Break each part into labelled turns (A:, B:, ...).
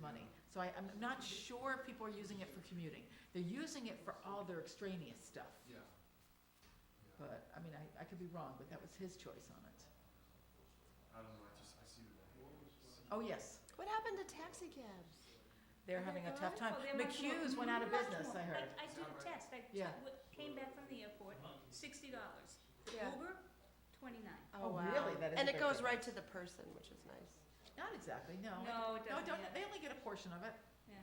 A: money. So I, I'm not sure if people are using it for commuting. They're using it for all their extraneous stuff.
B: Yeah. Yeah.
A: But, I mean, I, I could be wrong, but that was his choice on it.
B: I don't know, I just, I see the value.
A: Oh, yes,
C: What happened to taxi cabs?
A: they're
D: Oh my
A: having a
D: God.
A: tough time.
D: Oh, they're much more-
A: McHugh's went out of
D: much
A: business,
D: more.
A: I heard.
D: I did a test, I
A: Yeah.
D: w- came back from the airport, sixty dollars.
C: Yeah.
D: Uber, twenty-nine.
A: Oh, really? That is
C: And
A: a
C: it
A: big
C: goes
A: difference.
C: right to the person, which is nice.
A: Not exactly, no.
D: No, it
A: No,
D: doesn't,
A: don't,
D: yeah.
A: they only get a portion of it.
D: Yeah.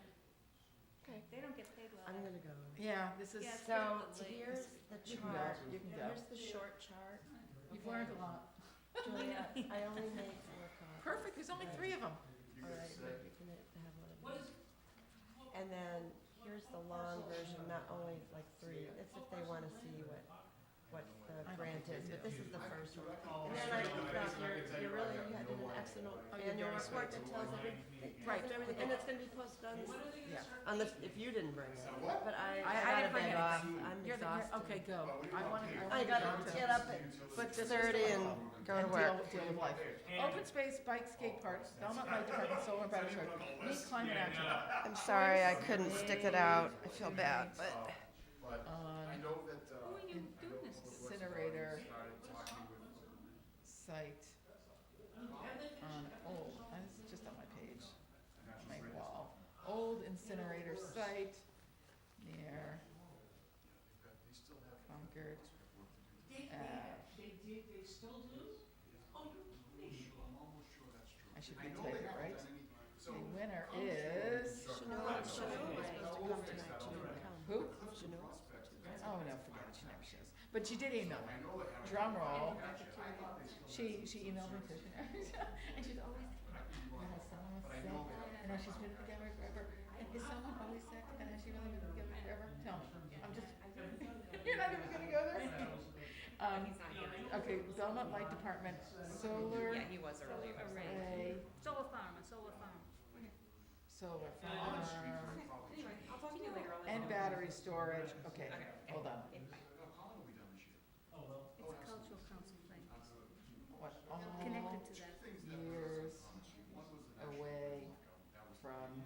C: Okay.
D: They don't get paid well.
C: I'm gonna go.
A: Yeah, this is,
D: Yeah.
E: So
D: Definitely.
E: here's the
A: you can go,
E: chart,
A: you can go.
E: here's the short chart.
A: You've learned a lot.
E: Julia, I only made four copies.
A: Perfect, there's only three of them.
B: You
E: All
B: could
E: right,
B: say,
E: but you can have one of these. And then here's the long version, not only like three, it's if they wanna see what, what the
A: I don't
E: grant
A: think
E: is,
A: they
E: but
A: do.
E: this is the first one.
B: Oh,
E: And then I
B: sure.
E: looked
B: I
E: up,
B: can
E: your,
B: tell
E: you
B: you
E: really,
B: I have
E: you had
B: no
E: did an
B: idea.
E: excellent
B: Oh,
A: you're
E: annual
A: doing
E: report that
B: something.
E: tells everything, that
A: Right.
E: tells everything, and it's gonna be posted on, this-
A: Yeah.
E: unless, if you didn't bring it,
B: So what?
E: but I,
A: I- I
E: I
A: didn't
E: got a
A: bring
E: bit
A: it.
E: off, I'm
A: You're the,
E: exhausted.
A: you're- okay, go.
B: Well, we
A: I wanna,
B: want to-
A: I
B: I
A: wanna
E: gotta
A: talk to-
E: get up at
B: Utilities.
A: but just-
E: Thirty and go Oh, to
A: and
E: work.
A: deal, deal with life. Open space, bike, skate parks, Belmont Light Department, solar and battery charge, need climate action.
C: I'm sorry, I couldn't stick it out. I feel bad, but.
B: Uh, But I
A: On
B: know that, uh.
D: Who are
B: I
D: you
B: know
D: doing
B: Public
D: this
B: Works has
D: to?
B: already
A: Incinerator.
B: Started talking with,
A: site, on old, and this is just on my page, on my wall. Old incinerator site near
B: they still have
A: Concord,
B: work to do.
A: uh,
B: I'm almost sure that's true.
A: I should
B: I know
A: retake
B: they
A: it,
B: haven't
A: right?
B: done any- so
A: the winner is,
C: Shanola, Shanola was supposed to come tonight, she didn't come.
A: who?
C: Shanola?
A: Oh, no, forget it, she never shows. But she did email
B: I
A: me,
B: know they haven't.
A: drum roll. She, she emailed me, too. and she's always, you know, someone was sick, you know, she's been together forever, and is someone always sick, and has she really been together forever? Tell me, I'm just, you're not even gonna go there? Um, okay, Belmont Light Department, solar
F: he was earlier.
A: array,
D: Solar farm, a solar farm.
A: solar farm,
F: Anyway, I'll talk to you later. I'll let you
A: and
F: know.
A: battery storage, okay,
F: Okay.
A: hold on,
D: It's a cultural council thing,
A: what, all
D: connected to that.
A: years away from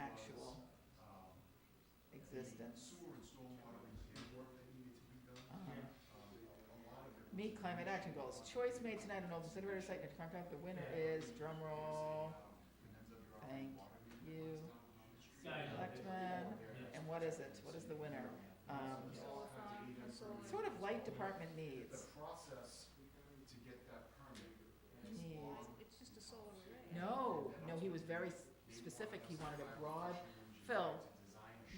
A: actual existence. Uh-huh. Meet climate action goals. Choice made tonight on Old Incinerator Site near Concord. The winner is, drum roll, thank you, Selectmen. And what is it? What is the winner? Um,
D: Solar farm, a solar.
A: sort of light department needs.
B: Process to get that permit.
A: Needs.
D: It's just a solar array.
A: No, no, he was very s- specific. He wanted a broad, Phil,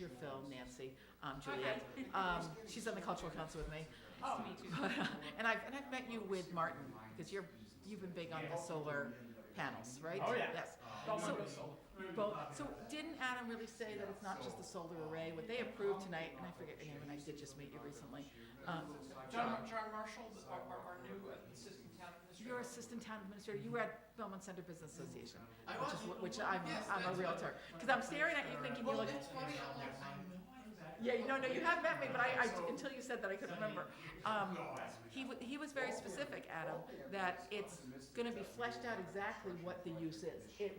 A: your Phil, Nancy, um, Juliet. Um, she's on the cultural council with me.
D: Nice to meet you.
A: But, uh, and I've, and I've met you with Martin, because you're, you've been big on the solar panels, right?
G: Oh, yeah.
A: Yes.
B: Uh,
G: Don't
A: So-
G: look at solar.
A: Both, so didn't Adam really say that it's not just the solar array, what they approved tonight, and I forget your name, and I did just meet you recently. Um,
G: John, John Marshall, the- our, our, our new assistant town administrator.
A: You're assistant town administrator, you were at Belmont Center Business Association,
G: I
A: which is,
G: was.
A: what- which I'm,
G: Yes,
A: I'm a
G: that's
A: realtor. Cause I'm staring at you thinking you
G: Well,
A: look,
G: it's funny, I'm like, I know I was at.
A: yeah, no, no, you have met me, but I, I, until you said that, I couldn't remember. Um, he, wa- he was very specific, Adam, that it's gonna be fleshed out exactly what the use is. It,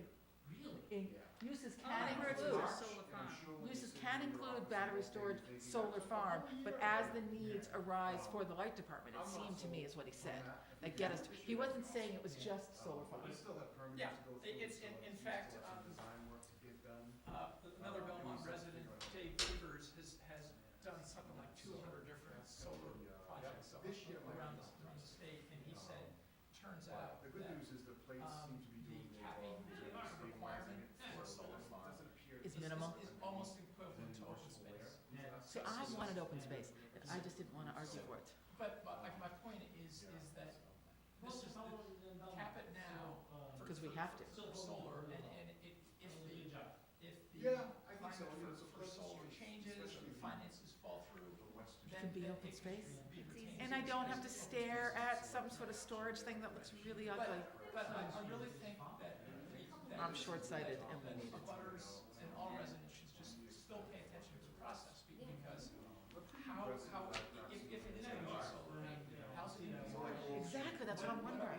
A: in, uses
D: Oh, I
A: can
D: heard it
A: include,
D: was a solar farm.
A: uses can include battery storage, solar farm, but as the needs arise for the light department, it seemed to me is what he said. That get us, to- he wasn't saying it was just solar farm.
B: We still have permits
G: Yeah,
B: to go
G: it-
B: through,
G: it's-
B: so
G: in-
B: if
G: in
B: there's
G: fact,
B: still
G: um,
B: some Design work to get done.
G: Uh, another Belmont resident, Dave Rivers, has, has done something like two hundred different solar projects up-
B: This year might
G: around
B: be
G: the,
B: something.
G: around the state, and he said, turns out
B: But The good
G: that,
B: news is the plates
G: um,
B: seem to be
G: the
B: doing their
G: capping
B: job in terms of stabilizing
G: requirement
B: it
G: for
B: for
G: solar farm
B: Doesn't appear.
A: It's
G: is,
A: minimal.
G: is almost equivalent to open space.
A: So I wanted open space, and I just didn't wanna argue for it.
G: But, but like, my point is, is that this is the, cap it now for.
A: Because we have to.
G: For solar, and, and it, if the, if the.
B: Yeah, I think so. I mean,
G: climate
B: it's a
G: For, for
B: place to
G: solar
B: change,
G: changes, or
B: especially
G: the
B: the-
G: finances fall through,
B: The western.
G: then.
A: can be
G: then
A: open
G: it
A: space.
G: be retained
A: And I
G: as
A: don't
G: open
A: have to
G: space.
A: stare at some sort of storage thing that looks really ugly.
G: But, but I, I really think that we, that.
A: I'm short-sighted and we need it.
G: Butters and all residents should just still pay attention to the process, be- because how, how, if, if it is gonna be solar, how's it gonna be?
A: Exactly, that's what I'm wondering.
B: uh,
G: uh,